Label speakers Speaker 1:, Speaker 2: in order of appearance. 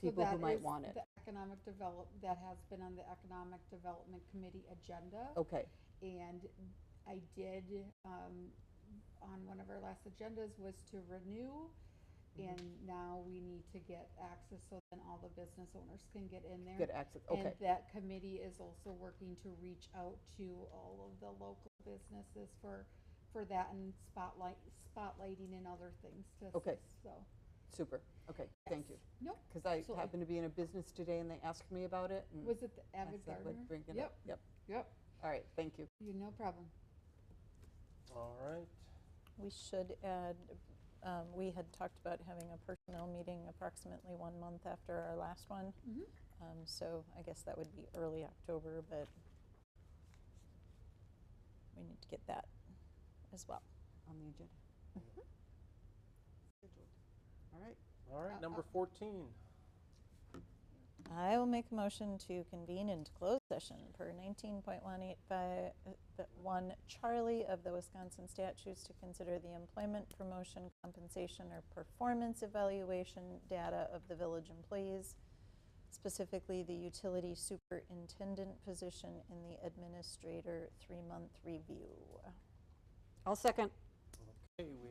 Speaker 1: So
Speaker 2: people who
Speaker 1: that
Speaker 2: might
Speaker 1: is
Speaker 2: want it.
Speaker 1: the Economic develop, that has been on the Economic Development Committee agenda.
Speaker 2: Okay,
Speaker 1: And I did, um, on one of our last agendas was to renew.
Speaker 2: Mm-hmm.
Speaker 1: And now we need to get access so then all the business owners can get in there.
Speaker 2: good access, okay.
Speaker 1: And that committee is also working to reach out to all of the local businesses for, for that and spotlight, spotlighting and other things to
Speaker 2: Okay.
Speaker 1: assist, so.
Speaker 2: Super, okay, thank you.
Speaker 1: yes. Nope,
Speaker 2: Because I
Speaker 1: So I-
Speaker 2: happened to be in a business today and they asked me about it. and
Speaker 1: was it the
Speaker 2: Mm. I
Speaker 1: Avid
Speaker 2: said, "Let's
Speaker 1: Gardener?
Speaker 2: bring it up."
Speaker 1: Yep,
Speaker 2: Yep,
Speaker 1: yep,
Speaker 2: all right, thank you.
Speaker 1: you, no problem.
Speaker 3: All right.
Speaker 4: We should add, um, we had talked about having a personnel meeting approximately one month after our last one.
Speaker 1: Mhm.
Speaker 4: Um, So I guess that would be early October, but we need to get that as well.
Speaker 2: On the agenda.
Speaker 1: Mm-hmm.
Speaker 2: Scheduled. All right,
Speaker 3: All
Speaker 1: Uh,
Speaker 3: right, number
Speaker 1: uh.
Speaker 3: 14.
Speaker 4: I will make a motion to convene into closed session per 19.185, uh, 1 Charlie of the Wisconsin statutes to consider the employment, promotion, compensation, or performance evaluation data of the village employees, specifically the utility superintendent position and the administrator three-month review.
Speaker 2: I'll second.
Speaker 3: Okay, we